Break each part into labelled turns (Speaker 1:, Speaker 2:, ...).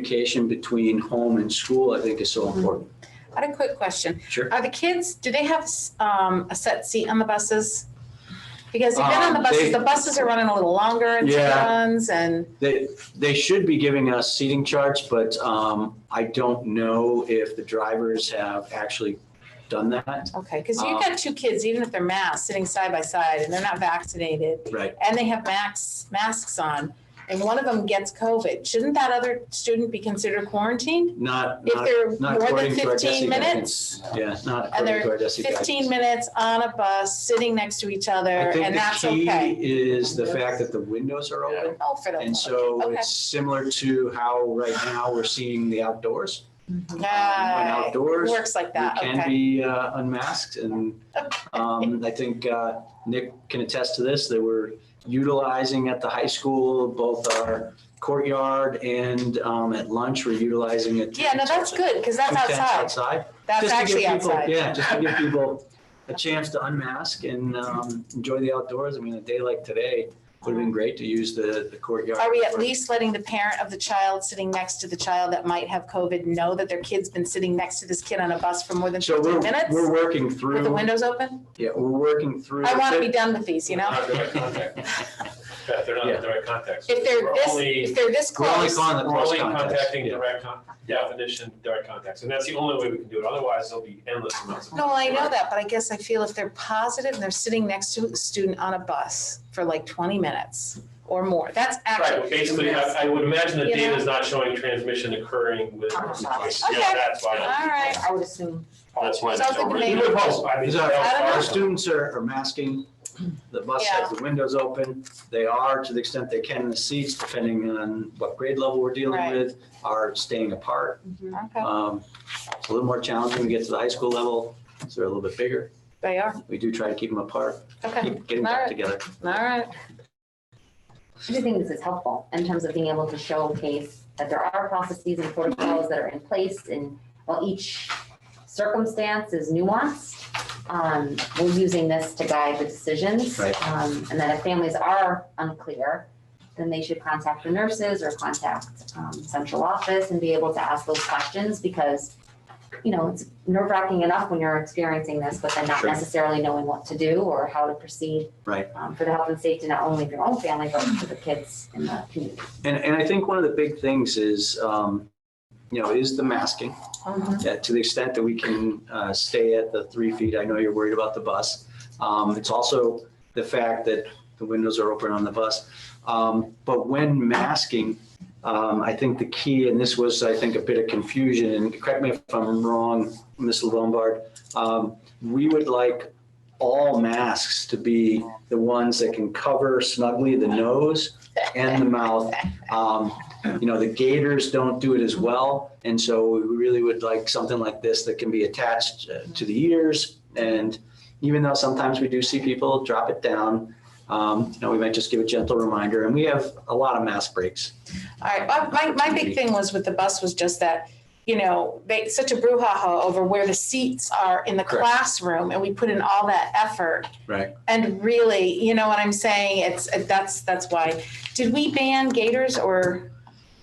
Speaker 1: communication between home and school, I think is so important.
Speaker 2: I had a quick question.
Speaker 1: Sure.
Speaker 2: Are the kids, do they have um, a set seat on the buses? Because they've been on the
Speaker 1: Um,
Speaker 2: buses,
Speaker 1: they-
Speaker 2: the buses are running a little longer and
Speaker 1: Yeah.
Speaker 2: runs and,
Speaker 1: They, they should be giving us seating charts, but um, I don't know if the drivers have actually done that.
Speaker 2: okay, because
Speaker 1: Uh,
Speaker 2: you've got two kids, even if they're masked, sitting side by side and they're not vaccinated
Speaker 1: Right.
Speaker 2: and they have masks, masks on and one of them gets COVID, shouldn't that other student be considered quarantined?
Speaker 1: Not,
Speaker 2: If
Speaker 1: not,
Speaker 2: they're
Speaker 1: not
Speaker 2: more than
Speaker 1: according to our DESI
Speaker 2: fifteen minutes,
Speaker 1: guidance. Yeah, not
Speaker 2: And
Speaker 1: according
Speaker 2: they're
Speaker 1: to our DESI guidance.
Speaker 2: fifteen minutes on a bus, sitting next to each other
Speaker 1: I think
Speaker 2: and
Speaker 1: the
Speaker 2: that's
Speaker 1: key
Speaker 2: okay.
Speaker 1: Is the fact that the windows are open.
Speaker 2: Oh, for the.
Speaker 1: And so
Speaker 2: Okay.
Speaker 1: it's similar to how right now we're seeing the outdoors. When
Speaker 2: Yeah, it
Speaker 1: outdoors,
Speaker 2: works like
Speaker 1: you
Speaker 2: that, okay.
Speaker 1: can be uh, unmasked. And um, I think uh, Nick can attest to this, that we're utilizing at the high school, both our courtyard and um, at lunch, we're utilizing it.
Speaker 2: Yeah, no, that's good, because that's
Speaker 1: Two tents
Speaker 2: outside.
Speaker 1: Outside.
Speaker 2: That's
Speaker 1: Just to give
Speaker 2: actually
Speaker 1: people-
Speaker 2: outside.
Speaker 1: Yeah, just to give people a chance to unmask and um, enjoy the outdoors. I mean, a day like today would have been great to use the the courtyard.
Speaker 2: Are we at
Speaker 1: for-
Speaker 2: least letting the parent of the child sitting next to the child that might have COVID know that their kid's been sitting next to this kid on a bus for more than
Speaker 1: So
Speaker 2: fifteen
Speaker 1: we're,
Speaker 2: minutes
Speaker 1: we're working
Speaker 2: with the
Speaker 1: through,
Speaker 2: windows open?
Speaker 1: yeah, we're working through.
Speaker 2: I want to be done with these, you know?
Speaker 3: Not the right context. Beth, they're not in the right context.
Speaker 2: If they're
Speaker 3: We're
Speaker 2: this,
Speaker 3: only-
Speaker 2: if they're this
Speaker 1: We're only
Speaker 2: close,
Speaker 1: calling the
Speaker 3: We're
Speaker 1: close
Speaker 3: only
Speaker 1: contacts.
Speaker 3: contacting
Speaker 1: yeah.
Speaker 3: direct con, definition, direct context, and that's the only way we can do it, otherwise there'll be endless amounts of.
Speaker 2: no, I know that, but I guess I feel if they're positive and they're sitting next to a student on a bus for like twenty minutes or more, that's
Speaker 3: Right,
Speaker 2: actually.
Speaker 3: but basically, I, I would imagine the
Speaker 2: You know?
Speaker 3: data is not showing transmission occurring with.
Speaker 4: Uh-huh.
Speaker 3: Yeah,
Speaker 2: Okay.
Speaker 3: that's
Speaker 2: All
Speaker 3: why,
Speaker 2: right,
Speaker 4: I would assume.
Speaker 3: that's why.
Speaker 2: Sounds like a
Speaker 3: We
Speaker 2: name.
Speaker 3: would hope, I mean,
Speaker 1: Is that-
Speaker 2: I don't know.
Speaker 1: Our students are, are masking, the bus has the windows open, they are, to the extent they can, in the seats, depending on what grade level we're dealing
Speaker 2: Right.
Speaker 1: with, are staying apart.
Speaker 2: okay,
Speaker 1: Um, It's a little more challenging when we get to the high school level, so they're a little bit bigger.
Speaker 2: they are,
Speaker 1: We do try to keep them apart,
Speaker 2: okay,
Speaker 1: keep getting
Speaker 2: All
Speaker 1: back
Speaker 2: right.
Speaker 1: together.
Speaker 2: all right.
Speaker 4: I do think this is helpful in terms of being able to showcase that there are processes and protocols that are in place and while each circumstance is nuanced, um, we're using this to guide the decisions.
Speaker 1: Right.
Speaker 4: Um, and that if families are unclear, then they should contact the nurses or contact, um, central office and be able to ask those questions because, you know, it's nerve wracking enough when you're experiencing this, but then not
Speaker 1: Sure.
Speaker 4: necessarily knowing what to do or how to proceed um, for the health and safety, not only of your own family, but for the kids in the community.
Speaker 1: And, and I think one of the big things is, um, you know, is the masking. Yeah, to the extent that we can uh, stay at the three feet, I know you're worried about the bus. Um, It's also the fact that the windows are open on the bus. Um, But when masking, um, I think the key, and this was, I think, a bit of confusion, and correct me if I'm wrong, Ms. Lombard, um, we would like all masks to be the ones that can cover snugly the nose and the mouth. Um, you know, the gators don't do it as well. And so we really would like something like this that can be attached uh, to the ears. And even though sometimes we do see people drop it down, um, you know, we might just give a gentle reminder. And we have a lot of mask breaks.
Speaker 2: All right, my, my, my big thing was with the bus was just that, you know, they, such a brouhaha over where the seats are in the
Speaker 1: Correct.
Speaker 2: classroom and we put in all that effort.
Speaker 1: Right.
Speaker 2: And really, you know what I'm saying? It's, that's, that's why. Did we ban gators or,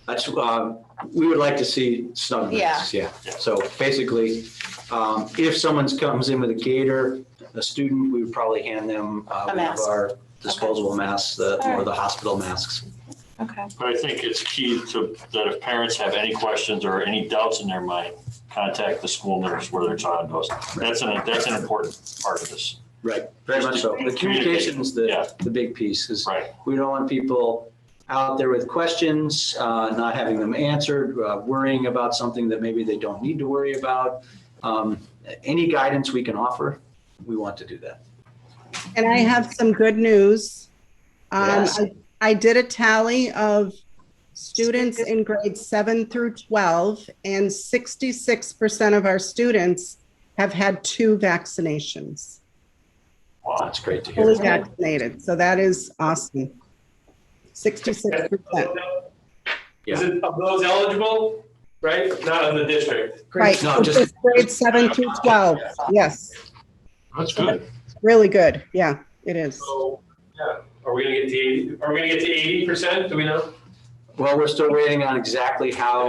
Speaker 1: That's, um, we would like to see snug masks, yeah. So basically, um, if someone comes in with a gator, a student, we would probably hand them uh, one of
Speaker 2: mask.
Speaker 1: our disposable masks, the,
Speaker 2: All
Speaker 1: or
Speaker 2: right.
Speaker 1: the hospital masks.
Speaker 2: okay,
Speaker 5: But I think it's key to, that if parents have any questions or any doubts in their mind, contact the school nurse where their child goes. That's an, that's an important part of this.
Speaker 1: Right, very much so. The communication is
Speaker 5: Yeah.
Speaker 1: the, the big piece, is
Speaker 5: Right.
Speaker 1: we don't want people out there with questions, uh, not having them answered, uh, worrying about something that maybe they don't need to worry about. Um, Any guidance we can offer, we want to do that.
Speaker 6: And I have some good news. Um,
Speaker 1: Yes.
Speaker 6: I, I did a tally of students in grades seven through 12, and 66% of our students have had two vaccinations,
Speaker 5: Wow.
Speaker 1: That's great to
Speaker 6: fully
Speaker 1: hear.
Speaker 6: vaccinated. So that is awesome. 66%.
Speaker 3: Is it of those eligible, right, not of the district?
Speaker 6: Right.
Speaker 1: No, just-
Speaker 6: Just grades seven through 12. Yes,
Speaker 5: That's good.
Speaker 6: really good. Yeah, it is.
Speaker 3: So, yeah, are we gonna get to eighty, are we gonna get to eighty percent, do we know?
Speaker 1: Well, we're still waiting on exactly how